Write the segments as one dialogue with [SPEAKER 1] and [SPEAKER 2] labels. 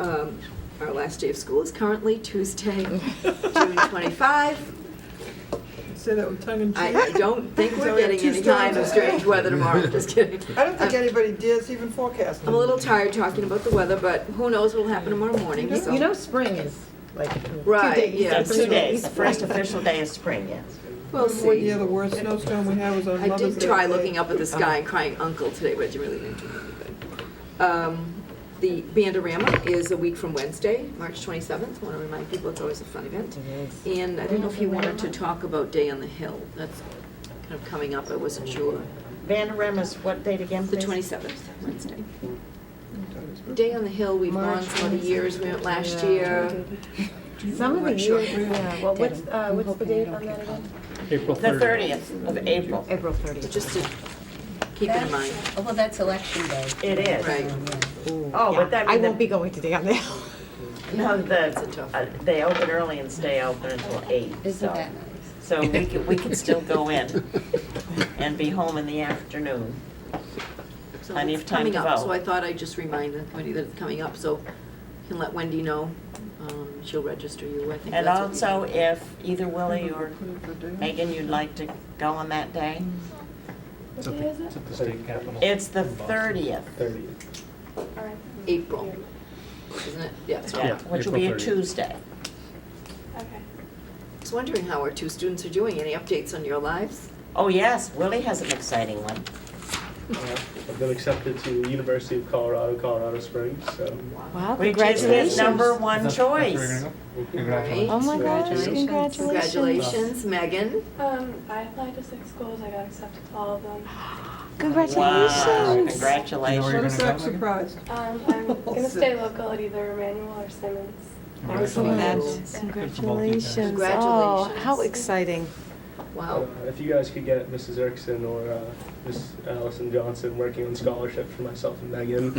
[SPEAKER 1] um, our last day of school is currently Tuesday, June 25.
[SPEAKER 2] Say that with tongue in cheek.
[SPEAKER 1] I I don't think
[SPEAKER 2] So
[SPEAKER 1] we're
[SPEAKER 2] we have
[SPEAKER 1] getting
[SPEAKER 2] two
[SPEAKER 1] any time of
[SPEAKER 2] storms.
[SPEAKER 1] strange weather tomorrow, just kidding.
[SPEAKER 2] I don't think
[SPEAKER 1] I'm-
[SPEAKER 2] anybody dares even forecast.
[SPEAKER 1] I'm a little tired talking about the weather, but who knows what'll happen tomorrow morning,
[SPEAKER 3] You
[SPEAKER 1] so.
[SPEAKER 3] you know, spring is like two
[SPEAKER 1] Right,
[SPEAKER 3] days.
[SPEAKER 1] yeah.
[SPEAKER 3] Two days, first official day of spring, yes.
[SPEAKER 1] We'll
[SPEAKER 2] Remember What
[SPEAKER 1] see.
[SPEAKER 2] year the worst snowstorm we had was on
[SPEAKER 1] I
[SPEAKER 2] Mother's Day.
[SPEAKER 1] did try
[SPEAKER 2] Day.
[SPEAKER 1] looking up at the sky and crying uncle today, but it really didn't do anything. Um, The Bandorama is a week from Wednesday, March 27th. Want to remind people, it's always a fun event. And I didn't know if you wanted to talk about Day on the Hill. That's kind of coming up, I wasn't sure.
[SPEAKER 3] Vanderem is what date again,
[SPEAKER 1] The
[SPEAKER 3] please?
[SPEAKER 1] 27th, Wednesday. Day on the Hill, we've gone
[SPEAKER 4] March
[SPEAKER 1] some of the years, we went last
[SPEAKER 3] Yeah.
[SPEAKER 1] year.
[SPEAKER 4] Some of the
[SPEAKER 1] Weren't sure.
[SPEAKER 4] years, yeah, well, what's, uh, what's the date on that again?
[SPEAKER 5] April
[SPEAKER 3] The
[SPEAKER 5] 30th.
[SPEAKER 3] thirtieth of April.
[SPEAKER 4] April thirtieth.
[SPEAKER 1] Just to keep it in mind.
[SPEAKER 6] That's- oh, Well, that's election day. Um,
[SPEAKER 3] It is.
[SPEAKER 1] Right.
[SPEAKER 3] Oh, but that
[SPEAKER 4] I
[SPEAKER 3] means.
[SPEAKER 4] won't be going today on that.
[SPEAKER 3] No,
[SPEAKER 1] a
[SPEAKER 3] the,
[SPEAKER 1] tough
[SPEAKER 3] uh, they open early and stay open until eight. so-
[SPEAKER 6] Isn't that nice?
[SPEAKER 3] So we could, we could still go in and be home in the afternoon.
[SPEAKER 1] So
[SPEAKER 3] Plenty
[SPEAKER 1] it's
[SPEAKER 3] of time
[SPEAKER 1] coming
[SPEAKER 3] to
[SPEAKER 1] up.
[SPEAKER 3] vote.
[SPEAKER 1] So I thought I'd just remind the committee that it's coming up, so can let Wendy know. Um, She'll register you, I think
[SPEAKER 3] And
[SPEAKER 1] that's what we-
[SPEAKER 3] also if either Willie or
[SPEAKER 2] Put it for day.
[SPEAKER 3] Megan, you'd like to go on that day?
[SPEAKER 5] It's at the- it's at the state capitol.
[SPEAKER 3] It's the
[SPEAKER 5] in Boston.
[SPEAKER 3] thirtieth,
[SPEAKER 5] 30th.
[SPEAKER 1] April, isn't it? Yeah, so I
[SPEAKER 3] yeah, which will be a
[SPEAKER 5] April 30th.
[SPEAKER 3] Tuesday.
[SPEAKER 7] Okay.
[SPEAKER 1] was wondering how our two students are doing. Any updates on your lives?
[SPEAKER 3] Oh, yes, Willie has an exciting one.
[SPEAKER 8] Uh, I've been accepted to the University of Colorado, Colorado Springs, so.
[SPEAKER 4] Wow,
[SPEAKER 3] Which is his number one
[SPEAKER 5] That's- that's where you're
[SPEAKER 3] choice.
[SPEAKER 5] gonna go?
[SPEAKER 1] Right.
[SPEAKER 4] Oh my gosh,
[SPEAKER 1] Congratulations.
[SPEAKER 4] congratulations.
[SPEAKER 1] Congratulations, Megan.
[SPEAKER 7] Um, I applied to six schools. I got accepted to all of them.
[SPEAKER 3] Wow,
[SPEAKER 4] Congratulations.
[SPEAKER 5] You're
[SPEAKER 2] What
[SPEAKER 3] congratulations.
[SPEAKER 2] a
[SPEAKER 5] gonna
[SPEAKER 2] sack
[SPEAKER 5] go, Megan?
[SPEAKER 2] surprise.
[SPEAKER 7] Um, I'm gonna stay local at either Emmanuel or Simmons.
[SPEAKER 5] Congratulations.
[SPEAKER 4] Congratulations. Oh,
[SPEAKER 1] Congratulations.
[SPEAKER 4] how exciting.
[SPEAKER 1] Wow.
[SPEAKER 8] Uh, If you guys could get Mrs. Erickson or uh, Miss Allison Johnson working on scholarship for myself and Megan.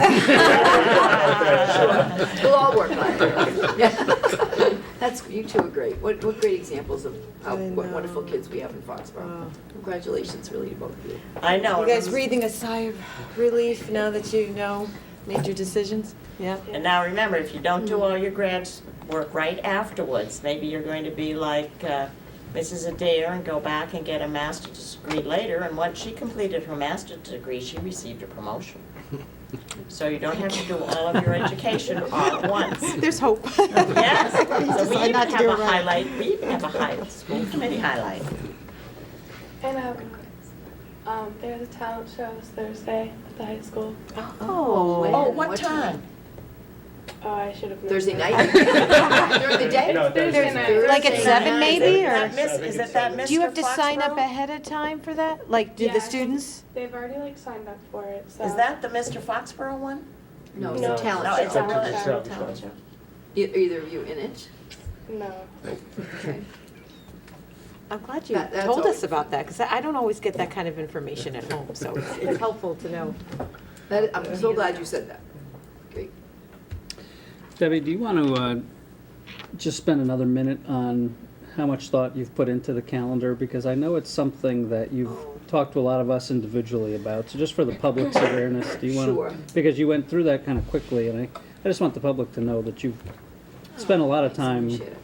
[SPEAKER 1] We'll all work on it. Yeah. That's, you two are great. What, what great examples of how
[SPEAKER 4] I
[SPEAKER 1] what wonderful
[SPEAKER 4] know.
[SPEAKER 1] kids we have in Foxborough.
[SPEAKER 4] Wow.
[SPEAKER 1] Congratulations, really, to both of you.
[SPEAKER 3] I know.
[SPEAKER 4] You guys breathing a sigh of relief now that you know, made your decisions? Yeah.
[SPEAKER 3] And now remember, if you don't do all your grad work right afterwards, maybe you're going to be like uh, Mrs. Adair and go back and get a master's degree later. And once she completed her master's degree, she received a promotion. So you don't have to do all of your education all at once.
[SPEAKER 4] There's hope.
[SPEAKER 3] Yes, so
[SPEAKER 4] Decide
[SPEAKER 3] we even
[SPEAKER 4] not
[SPEAKER 3] have
[SPEAKER 4] to do
[SPEAKER 3] a
[SPEAKER 4] it right.
[SPEAKER 3] highlight, we even have a high, school committee highlight.
[SPEAKER 7] And I have one quiz. Um, there are the talent shows Thursday at the high school.
[SPEAKER 1] Oh, when?
[SPEAKER 3] Oh, what
[SPEAKER 1] What
[SPEAKER 3] time?
[SPEAKER 1] time?
[SPEAKER 7] Oh, I should have. known
[SPEAKER 1] Thursday
[SPEAKER 7] that.
[SPEAKER 1] night? During the day?
[SPEAKER 8] No, Thursday
[SPEAKER 7] Thursday
[SPEAKER 8] night.
[SPEAKER 7] night.
[SPEAKER 4] Like at
[SPEAKER 3] Thursday
[SPEAKER 4] seven
[SPEAKER 3] night.
[SPEAKER 4] maybe,
[SPEAKER 3] Is
[SPEAKER 4] or?
[SPEAKER 3] that Miss- Is it that Mr.
[SPEAKER 4] Do you have to sign up
[SPEAKER 3] Foxborough?
[SPEAKER 4] ahead of time for that? Like, do
[SPEAKER 7] Yeah, I
[SPEAKER 4] the
[SPEAKER 7] think
[SPEAKER 4] students?
[SPEAKER 7] They've already like signed up for it, so.
[SPEAKER 3] Is that the Mr. Foxborough one?
[SPEAKER 1] No, it's
[SPEAKER 7] No.
[SPEAKER 1] a talent
[SPEAKER 3] No,
[SPEAKER 1] show.
[SPEAKER 3] it's a real,
[SPEAKER 8] It's a
[SPEAKER 3] it's a
[SPEAKER 8] talent
[SPEAKER 3] talent
[SPEAKER 8] show.
[SPEAKER 3] show.
[SPEAKER 1] E- Either of you in it?
[SPEAKER 7] No.
[SPEAKER 1] Okay.
[SPEAKER 4] I'm glad you
[SPEAKER 1] That- that's
[SPEAKER 4] told
[SPEAKER 1] always-
[SPEAKER 4] us about that, because I don't always get that kind of information at home, so it's- it's helpful to know.
[SPEAKER 1] That, I'm so glad you said that. Great.
[SPEAKER 9] Debbie, do you want to uh, just spend another minute on how much thought you've put into the calendar? Because I know it's something that you've talked to a lot of us individually about. So just for the public's awareness, do you want to?
[SPEAKER 1] Sure.
[SPEAKER 9] Because you went through that kind of quickly, and I, I just want the public to know that you've spent a lot of time.
[SPEAKER 1] Appreciate it.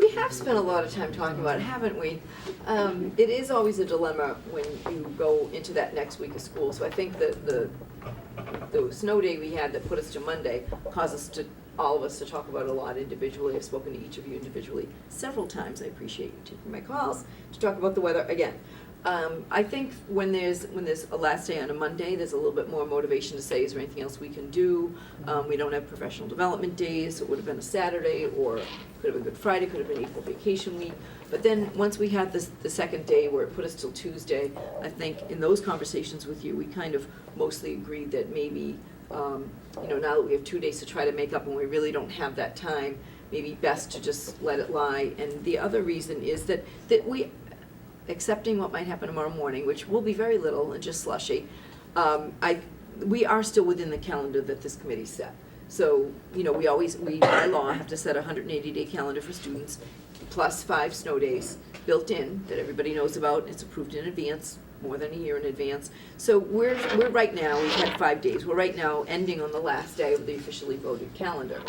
[SPEAKER 1] We have spent a lot of time talking about it, haven't we? Um, It is always a dilemma when you go into that next week of school. So I think that the, the snow day we had that put us to Monday caused us to, all of us to talk about it a lot individually. I've spoken to each of you individually several times. I appreciate you taking my calls to talk about the weather again. Um, I think when there's, when there's a last day on a Monday, there's a little bit more motivation to say, is there anything else we can do? Um, we don't have professional development days, so it would have been a Saturday, or could have been Good Friday, could have been equal vacation week. But then, once we had this, the second day where it put us till Tuesday, I think in those conversations with you, we kind of mostly agreed that maybe, um, you know, now that we have two days to try to make up and we really don't have that time, maybe best to just let it lie. And the other reason is that, that we, accepting what might happen tomorrow morning, which will be very little and just slushy, um, I, we are still within the calendar that this committee set. So, you know, we always, we by law have to set a hundred and eighty day calendar for students, plus five snow days built in that everybody knows about, it's approved in advance, more than a year in advance. So we're, we're right now, we've had five days, we're right now ending on the last day of the officially voted calendar.